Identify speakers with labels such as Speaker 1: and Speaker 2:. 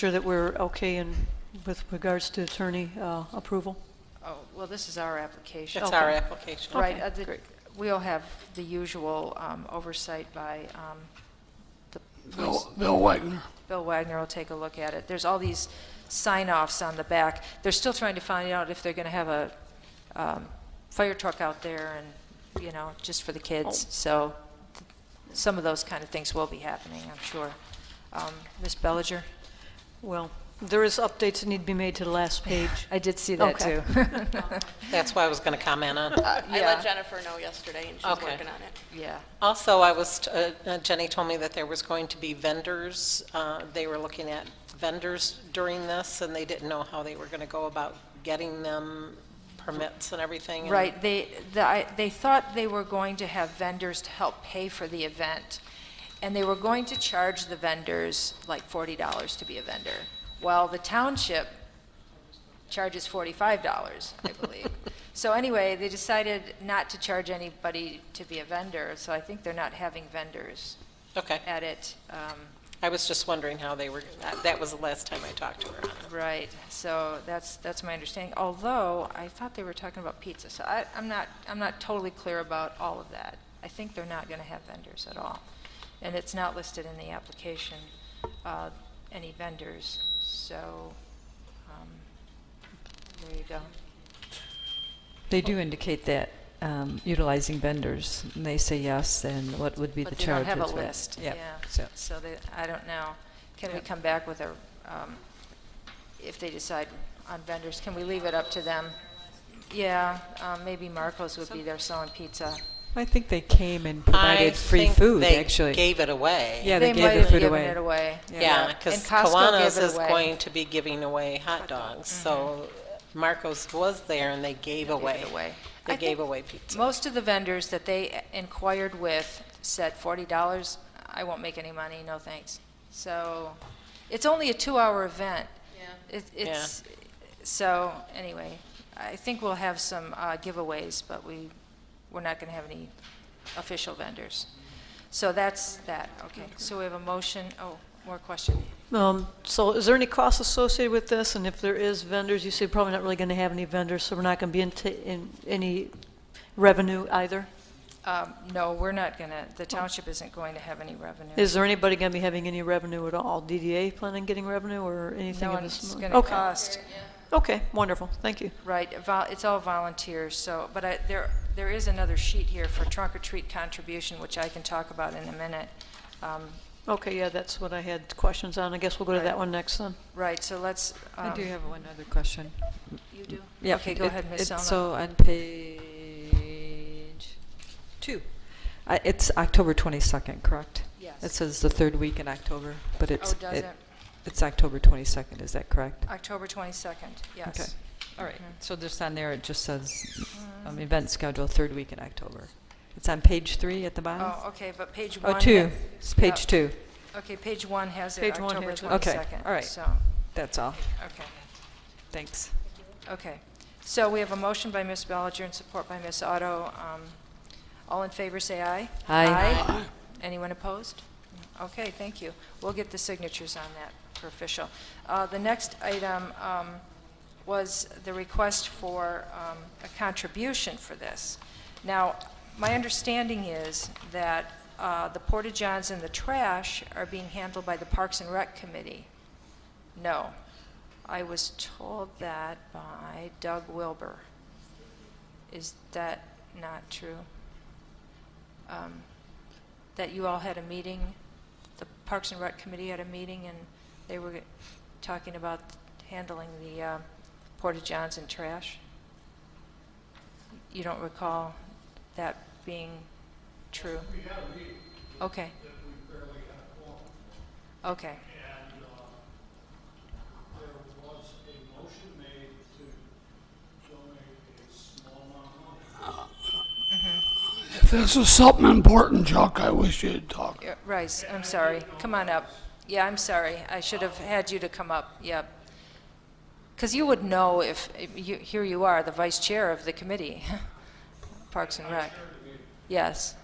Speaker 1: Sure that we're okay in, with regards to attorney uh, approval?
Speaker 2: Oh, well, this is our application.
Speaker 3: That's our
Speaker 1: Okay.
Speaker 3: application.
Speaker 2: Right,
Speaker 1: Okay,
Speaker 2: uh, the-
Speaker 1: great.
Speaker 2: we'll have the usual um, oversight by um, the police.
Speaker 4: Bill Bill Wagner.
Speaker 2: Bill Wagner will take a look at it. There's all these sign-offs on the back. They're still trying to find out if they're going to have a um, fire truck out there and, you know, just for the kids. So th- some of those kind of things will be happening, I'm sure. Um, Ms. Bellinger?
Speaker 1: Well, there is updates that need to be made to the last page.
Speaker 2: I did see that,
Speaker 1: Okay.
Speaker 2: too.
Speaker 3: That's what I was going to comment on.
Speaker 5: Uh, I
Speaker 2: Yeah.
Speaker 5: let Jennifer know yesterday, and she's
Speaker 3: Okay.
Speaker 5: working on it.
Speaker 2: Yeah.
Speaker 3: Also, I was, t- uh, uh, Jenny told me that there was going to be vendors, uh, they were looking at vendors during this, and they didn't know how they were going to go about getting them permits and everything. and-
Speaker 2: Right, they, the- I- they thought they were going to have vendors to help pay for the event, and they were going to charge the vendors like $40 to be a vendor, while the township charges $45, I believe. So anyway, they decided not to charge anybody to be a vendor, so I think they're not having vendors
Speaker 3: Okay,
Speaker 2: at it. um,
Speaker 3: I was just wondering how they were, that- that was the last time I talked to her. on it.
Speaker 2: Right, so that's, that's my understanding, although I thought they were talking about pizza, so I, I'm not, I'm not totally clear about all of that. I think they're not gonna have vendors at all, and it's not listed in the application, uh, any vendors, so, um, there you go.
Speaker 6: They do indicate that um, utilizing vendors, and they say yes, and what would be the
Speaker 2: But they don't
Speaker 6: charge?
Speaker 2: have a
Speaker 6: with that?
Speaker 2: list,
Speaker 6: Yep,
Speaker 2: yeah,
Speaker 6: so-
Speaker 2: so they, I don't know. Can we
Speaker 6: Yep.
Speaker 2: come back with a, um, if they decide on vendors, can we leave it up to them? Yeah, um, maybe Marco's would be there selling pizza.
Speaker 6: I think they came and provided free food,
Speaker 3: I think they
Speaker 6: actually.
Speaker 3: gave it away.
Speaker 6: Yeah, they
Speaker 2: might
Speaker 6: gave
Speaker 2: have
Speaker 6: the food
Speaker 2: given
Speaker 6: away.
Speaker 2: it away.
Speaker 3: Yeah,
Speaker 2: And
Speaker 3: because
Speaker 2: Costco
Speaker 3: Kiwanis
Speaker 2: gave it
Speaker 3: is
Speaker 2: away.
Speaker 3: going to be giving away hot dogs, so Marcos was there and they
Speaker 2: Mm-hmm. They
Speaker 3: gave
Speaker 2: gave
Speaker 3: away.
Speaker 2: it away.
Speaker 3: They
Speaker 2: I
Speaker 3: gave
Speaker 2: think
Speaker 3: away pizza.
Speaker 2: Most of the vendors that they inquired with said forty dollars, I won't make any money, no thanks. So, it's only a two-hour event. Yeah. It, it's, so, anyway, I think we'll have some uh, giveaways, but we, we're not gonna have any official vendors. So that's that, okay. So we have a motion, oh, more question.
Speaker 1: Um, So is there any cost associated with this? And if there is vendors, you say probably not really going to have any vendors, so we're not going to be in, ta- in any revenue either?
Speaker 2: Um, no, we're not gonna, the township isn't going to have any revenue.
Speaker 1: Is there anybody going to be having any revenue at all? DDA planning on getting revenue or anything?
Speaker 2: No,
Speaker 1: of
Speaker 2: and
Speaker 1: this
Speaker 2: it's
Speaker 1: mo-
Speaker 2: gonna
Speaker 1: Okay.
Speaker 2: cost.
Speaker 1: Okay, wonderful, thank you.
Speaker 2: Right, vol- it's all volunteers, so, but I, there, there is another sheet here for trunk or treat contribution, which I can talk about in a minute. Um,
Speaker 1: Okay, yeah, that's what I had questions on. I guess we'll go to
Speaker 2: Right.
Speaker 1: that one next then.
Speaker 2: Right, so let's.
Speaker 6: I
Speaker 2: um,
Speaker 6: do have one other question.
Speaker 2: You do?
Speaker 6: Yeah,
Speaker 2: Okay, go
Speaker 6: it-
Speaker 2: ahead, Ms.
Speaker 6: it's
Speaker 2: Selma.
Speaker 6: So on page two, I- it's October 22nd, correct?
Speaker 2: Yes.
Speaker 6: It says the third week in October, but it's.
Speaker 2: Oh, does it?
Speaker 6: It's October 22nd, is that correct?
Speaker 2: October 22nd,
Speaker 6: Okay.
Speaker 2: yes.
Speaker 6: All right,
Speaker 2: Mhm.
Speaker 6: so just on there, it just says,
Speaker 2: Mm.
Speaker 6: um, event schedule, third week in October. It's on page three at the bottom?
Speaker 2: Oh, okay, but page
Speaker 6: um, Oh,
Speaker 2: one.
Speaker 6: two,
Speaker 2: ha-
Speaker 6: it's
Speaker 2: yeah.
Speaker 6: page two,
Speaker 2: Okay, page one has it,
Speaker 1: Page one
Speaker 2: October
Speaker 1: has it.
Speaker 2: 22nd.
Speaker 6: Okay, all right.
Speaker 2: So,
Speaker 6: that's all,
Speaker 2: okay.
Speaker 6: thanks.
Speaker 2: Okay. So we have a motion by Ms. Bellinger and support by Ms. Otto. Um, All in favor, say aye.
Speaker 6: Aye.
Speaker 2: Anyone opposed? Okay, thank you. We'll get the signatures on that for official. Uh, The next item um, was the request for um, a contribution for this. Now, my understanding is that uh, the porta-johns and the trash are being handled by the Parks and Rec Committee. No. I was told that by Doug Wilbur. Is that not true? Um, That you all had a meeting, the Parks and Rec Committee had a meeting, and they were talking about handling the uh, porta-johns and trash? You don't recall that being true? We had a meeting. Okay. Okay.
Speaker 7: And uh, there was a motion made to donate a small amount of money.
Speaker 4: If this is something important, Chuck, I wish you'd talk.
Speaker 2: Yeah, Uh, Rice, I'm sorry. Come on up. Yeah, I'm sorry. I should have had you to come up. Yep. Because you would know if, if you, here you are, the vice chair of the committee, Parks and Rec. Yes.